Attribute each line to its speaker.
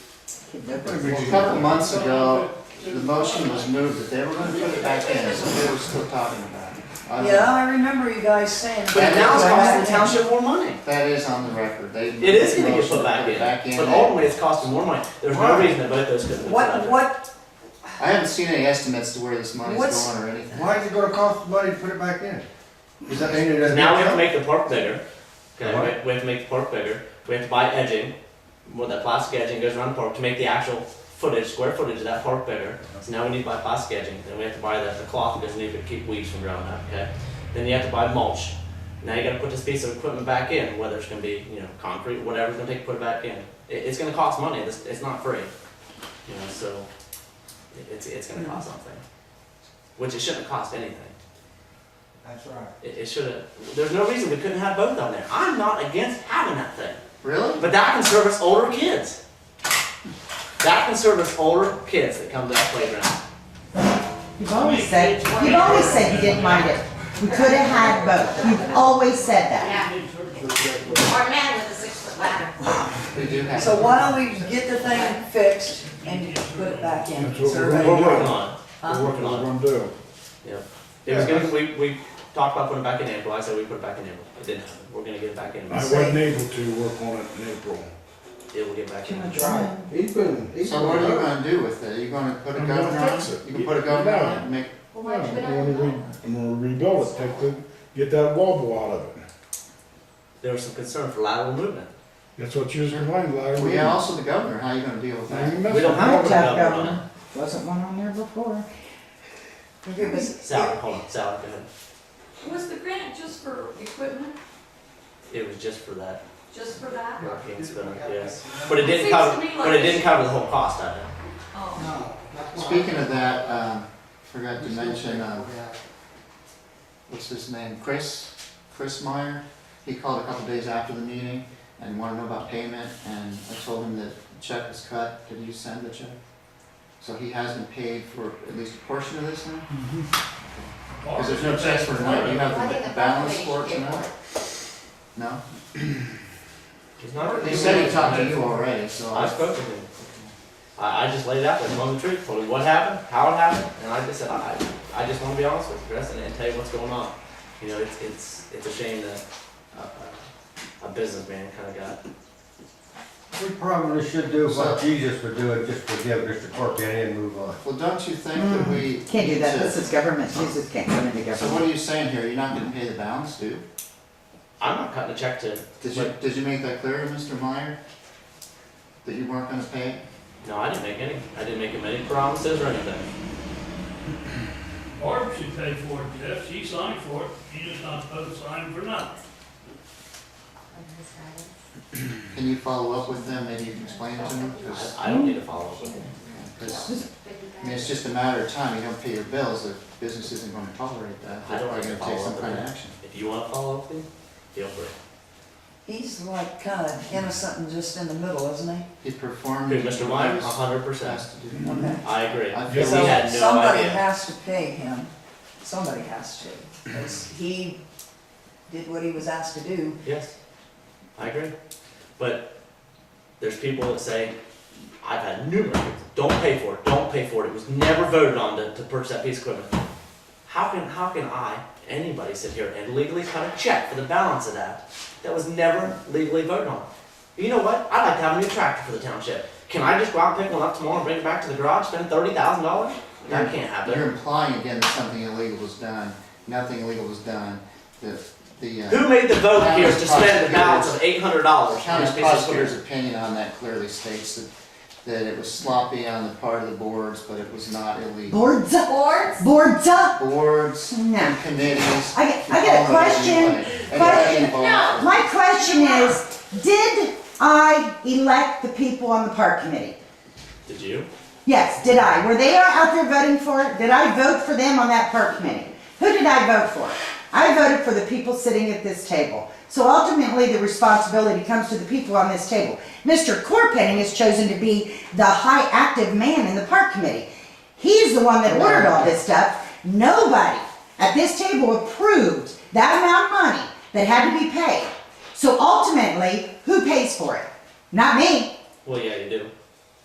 Speaker 1: A couple months ago, the motion was moved that they were gonna put it back in, so they were still talking about it. I don't-
Speaker 2: Yeah, I remember you guys saying.
Speaker 1: But
Speaker 3: But
Speaker 2: that.
Speaker 3: now it's costing the township more money.
Speaker 1: That is on the record, they.
Speaker 3: It is gonna get
Speaker 1: motioned
Speaker 3: put
Speaker 1: to
Speaker 3: back
Speaker 1: put it Back
Speaker 3: in,
Speaker 1: in.
Speaker 3: but ultimately it's costing more money. There's no
Speaker 2: Right.
Speaker 3: reason that both those couldn't. be put
Speaker 2: What,
Speaker 3: under.
Speaker 2: what,
Speaker 1: I haven't seen any estimates to where this money's
Speaker 2: What's-
Speaker 1: going or anything.
Speaker 4: Why is it gonna cost money to put it back in? Does that mean it doesn't?
Speaker 3: Now we have to make the park bigger. Okay,
Speaker 4: What?
Speaker 3: we- we have to make the park bigger. We have to buy edging, where that plastic edging goes around the park to make the actual footage, square footage of that park bigger. So now we need to buy plastic edging, then we have to buy the, the cloth because we need to keep weeds from growing up, okay? Then you have to buy mulch. Now you gotta put this piece of equipment back in, whether it's gonna be, you know, concrete, whatever it's gonna take to put it back in. It, it's gonna cost money, it's, it's not free. You know, so it, it's, it's gonna cost something. Which it shouldn't cost anything.
Speaker 4: That's right.
Speaker 3: It, it should have. There's no reason we couldn't have both on there. I'm not against having that thing,
Speaker 1: Really?
Speaker 3: but that can service older kids. That can service older kids that come to that playground.
Speaker 5: You've always said, you've always said you didn't mind it. We could have had both. You've always said that.
Speaker 6: Yeah, or man with a six-foot ladder.
Speaker 1: We do have.
Speaker 2: so why don't we get the thing fixed and put it back in?
Speaker 7: That's what we're
Speaker 2: survey?
Speaker 3: We're
Speaker 7: gonna
Speaker 3: working
Speaker 7: do.
Speaker 3: on it.
Speaker 2: Huh?
Speaker 7: We're working on what we're gonna do.
Speaker 3: It was gonna. We, we talked about putting it back in April. I said we put it back in April. It didn't happen. We're gonna get it back in.
Speaker 7: I wasn't able to work on it in April.
Speaker 3: It will get back in.
Speaker 4: Right. He's been, he's
Speaker 1: So what are you
Speaker 4: been.
Speaker 1: gonna do with it? Are you gonna put a
Speaker 7: I'm
Speaker 1: governor
Speaker 7: gonna
Speaker 1: on
Speaker 7: fix
Speaker 1: it?
Speaker 7: it.
Speaker 1: You can put a governor on it and make,
Speaker 6: Well,
Speaker 7: Yeah,
Speaker 6: why
Speaker 7: I'm
Speaker 6: do it
Speaker 7: gonna re- I'm gonna rebuild it, take the, get that wobble out of it.
Speaker 3: There was some concern for lateral movement.
Speaker 7: That's what you was complaining about.
Speaker 1: well, yeah, also the governor, how are you gonna deal with that?
Speaker 3: We don't have a
Speaker 5: Jeff
Speaker 3: governor on it.
Speaker 5: Governor. Wasn't one on there before.
Speaker 2: Okay, but-
Speaker 3: Sally, hold on. Sally, go ahead.
Speaker 6: Was the grant just for equipment,
Speaker 3: It was just for that.
Speaker 6: just for that?
Speaker 3: Rocking spinner. Yes. But it didn't cover.
Speaker 6: Seems to me
Speaker 3: But it
Speaker 6: like-
Speaker 3: didn't cover the whole cost of it.
Speaker 6: Oh,
Speaker 1: Speaking of that, um, forgot to mention, um, what's his name, Chris, Chris Meyer. He called a couple days after the meeting and wanted to know about payment, and I told him that the check was cut, did you send the check? So he hasn't paid for at least a portion of this now? Because there's no checks for tonight, you have
Speaker 6: I think
Speaker 1: the
Speaker 6: the
Speaker 1: balance
Speaker 6: property
Speaker 1: for
Speaker 6: should get
Speaker 1: tonight?
Speaker 6: one.
Speaker 1: No?
Speaker 3: It's not-
Speaker 1: He said he talked to you already, so.
Speaker 3: I spoke to him. I, I just laid out there, told him the truth, told him what happened, how it happened, and I just said, I, I just wanna be honest with you, Chris, and, and tell you what's going on. You know, it's, it's, it's a shame that uh, a, a, a businessman kinda got,
Speaker 4: We probably should do what Jesus would do and just forgive Mr. Corpenny and move on.
Speaker 1: Well, don't you think that we?
Speaker 5: Mm, Can't do that.
Speaker 1: need to-
Speaker 5: This is government. Jesus can't come into
Speaker 1: So what
Speaker 5: government.
Speaker 1: are you saying here, you're not gonna pay the balance, dude?
Speaker 3: I'm not cutting a check to,
Speaker 1: Did you, did you make that clear to Mr. Meyer? That you weren't gonna pay? it?
Speaker 3: no, I didn't make any, I didn't make him any promises or anything.
Speaker 8: Barb should pay for it, Jeff, she signed for it, she just not supposed to sign for nothing.
Speaker 1: Can you follow up with them, maybe you can explain it to them? Because,
Speaker 3: I, I don't need to follow up with him.
Speaker 1: I mean, it's just a matter of time, you don't pay your bills, the business isn't gonna tolerate that.
Speaker 3: I
Speaker 1: They're probably
Speaker 3: don't need
Speaker 1: gonna
Speaker 3: to
Speaker 1: take
Speaker 3: follow
Speaker 1: some
Speaker 3: up
Speaker 1: kind
Speaker 3: with
Speaker 1: of
Speaker 3: that.
Speaker 1: action.
Speaker 3: If you wanna follow up with him, feel free.
Speaker 2: He's like kind of innocent and just in the middle, isn't he?
Speaker 1: He performed.
Speaker 3: Dude, Mr.
Speaker 1: what
Speaker 3: Meyer, a
Speaker 1: he was
Speaker 3: hundred percent,
Speaker 1: asked to do.
Speaker 7: Mm-hmm.
Speaker 2: Okay.
Speaker 3: I agree.
Speaker 1: I
Speaker 3: Because
Speaker 1: feel-
Speaker 3: he
Speaker 2: So
Speaker 3: had no
Speaker 2: Somebody
Speaker 3: idea.
Speaker 2: has to pay him, somebody has to, 'cause he did what he was asked to do.
Speaker 3: Yes, I agree. But there's people that say, I've had numerous, don't pay for it, don't pay for it. It was never voted on to, to purchase that piece of equipment. How can, how can I, anybody sit here and legally cut a check for the balance of that? That was never legally voted on. You know what? I'd like to have a new tractor for the township. Can I just go out and pick one up tomorrow and bring it back to the garage, spend thirty thousand dollars? That can't happen.
Speaker 1: You're implying again that something illegal was done, nothing illegal was done, that the, uh,
Speaker 3: Who made the vote here to spend the
Speaker 1: Prosecutor's-
Speaker 3: balance of eight hundred dollars on
Speaker 1: county
Speaker 3: this piece of
Speaker 1: prosecutor's
Speaker 3: equipment?
Speaker 1: opinion on that clearly states that, that it was sloppy on the part of the boards, but it was not illegal.
Speaker 5: Boards up.
Speaker 6: Boards?
Speaker 5: Boards up.
Speaker 1: Boards,
Speaker 5: No.
Speaker 1: committees.
Speaker 5: I get- I get a
Speaker 1: you call it whatever you
Speaker 5: question.
Speaker 1: want. And that
Speaker 5: Question.
Speaker 1: involves-
Speaker 5: My question is, did I elect the people on the park committee?
Speaker 3: Did you?
Speaker 5: Yes, did I? Were they out there voting for it? Did I vote for them on that park committee? Who did I vote for? I voted for the people sitting at this table. So ultimately, the responsibility comes to the people on this table. Mr. Corpenning has chosen to be the high active man in the park committee. He's the one that ordered all this stuff. Nobody at this table approved that amount of money that had to be paid. So ultimately, who pays for it? Not me.
Speaker 3: Well, yeah, you do.